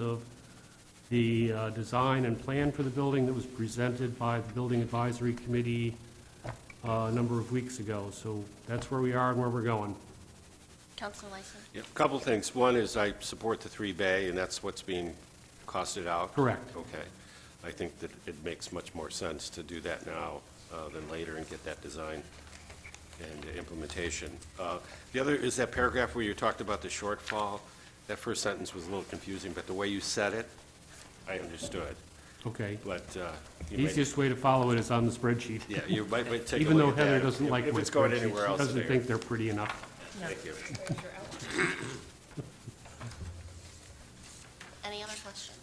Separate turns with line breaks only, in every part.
of the uh, design and plan for the building that was presented by the Building Advisory Committee uh, a number of weeks ago. So that's where we are and where we're going.
Counselor Lyson?
Yeah, a couple things. One is I support the three bay, and that's what's being costed out.
Correct.
Okay. I think that it makes much more sense to do that now uh, than later and get that design and implementation. Uh, The other is that paragraph where you talked about the shortfall. That first sentence was a little confusing, but the way you said it, I understood.
Okay.
But uh, you might,
Easiest way to follow it is on the spreadsheet.
yeah, you might might take a
Even though
look at that.
Heather doesn't
If-
like my
If it's going
spreadsheets,
anywhere
she
else,
doesn't
there.
think they're pretty enough.
Thank you.
Any other questions?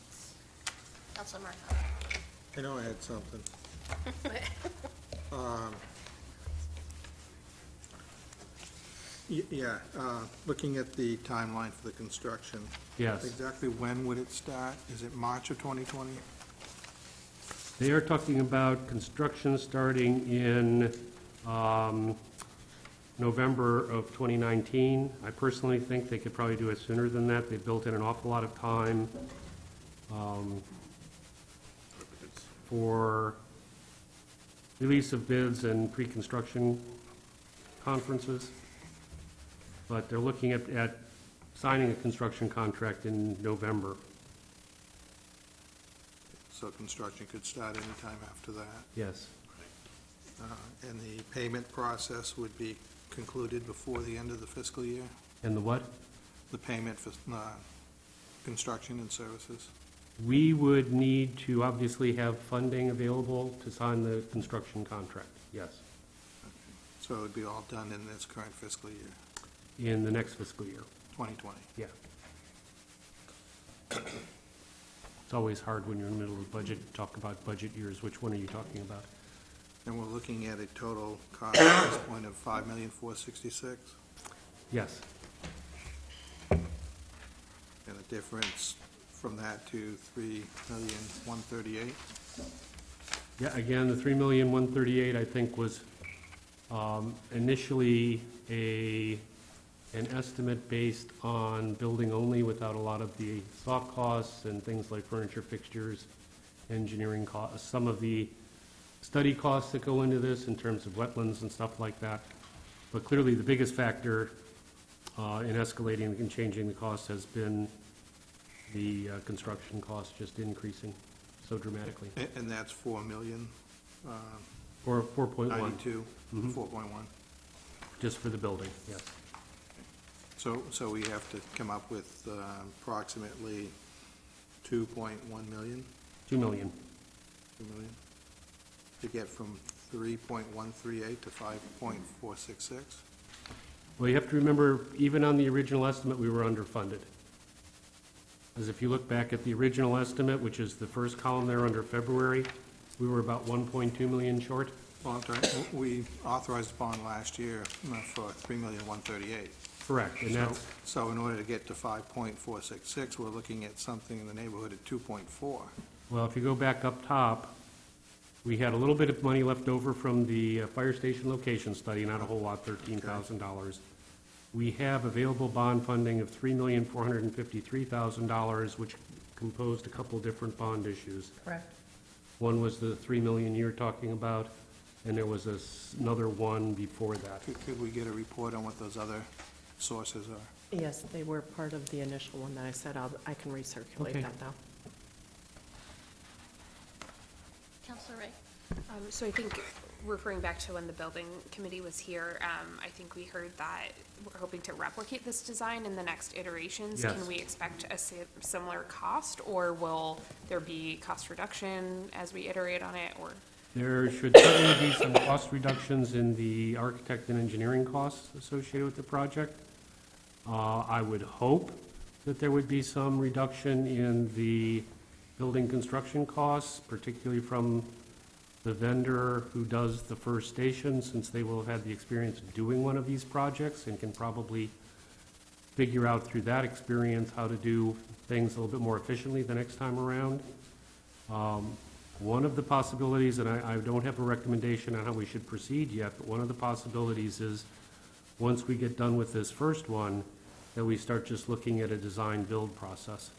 Counselor Murphy?
I know I had something. Um, y- Yeah, uh, looking at the timeline for the construction.
Yes.
Exactly when would it start? Is it March of 2020?
They are talking about construction starting in um, November of 2019. I personally think they could probably do it sooner than that. They built in an awful lot of time um, for release of bids and pre-construction conferences. But they're looking at, at signing a construction contract in November.
So construction could start anytime after that.
Yes.
Uh, And the payment process would be concluded before the end of the fiscal year?
And the what?
The payment for uh, construction and services?
We would need to obviously have funding available to sign the construction contract, yes,
So it would be all done in this current fiscal year,
in the next fiscal year,
2020?
yeah. It's always hard when you're in the middle of budget, to talk about budget years, which one are you talking about?
And we're looking at a total cost at this point of five million, four sixty-six,
Yes,
and the difference from that to three million, one thirty-eight.
yeah, again, the three million, one thirty-eight, I think, was um, initially a, an estimate based on building only without a lot of the soft costs and things like furniture fixtures, engineering costs, some of the study costs that go into this in terms of wetlands and stuff like that. But clearly, the biggest factor uh, in escalating and changing the cost has been the uh, construction costs just increasing so dramatically,
And, and that's four million, uh,
or 4.1,
ninety-two, four point one.
just for the building, yes.
So, so we have to come up with uh, approximately two point one million,
2 million,
two million, to get from three point one three eight to five point four six six.
Well, you have to remember, even on the original estimate, we were underfunded. Because if you look back at the original estimate, which is the first column there under February, we were about 1.2 million short.
Well, I'm sorry, w- we authorized a bond last year uh, for three million, one thirty-eight.
Correct. And
So,
that's,
so in order to get to five point four six six, we're looking at something in the neighborhood of two point four.
well, if you go back up top, we had a little bit of money left over from the uh, fire station location study, not a whole lot, $13,000. We have available bond funding of $3,453,000, which composed a couple different bond issues.
Correct.
One was the 3 million you're talking about, and there was this- another one before that.
Could, could we get a report on what those other sources are?
Yes, they were part of the initial one that I said, I'll, I can
Okay.
recirculate that though.
Counselor Ray?
Um, So I think, referring back to when the building committee was here, um, I think we heard that we're hoping to replicate this design in the next iterations.
Yes.
Can we expect a si- similar cost, or will there be cost reduction as we iterate on it, or?
There should certainly be some cost reductions in the architect and engineering costs associated with the project. Uh, I would hope that there would be some reduction in the building construction costs, particularly from the vendor who does the first station, since they will have had the experience of doing one of these projects and can probably figure out through that experience how to do things a little bit more efficiently the next time around. Um, One of the possibilities, and I, I don't have a recommendation on how we should proceed yet, but one of the possibilities is, once we get done with this first one, that we start just looking at a design-build process.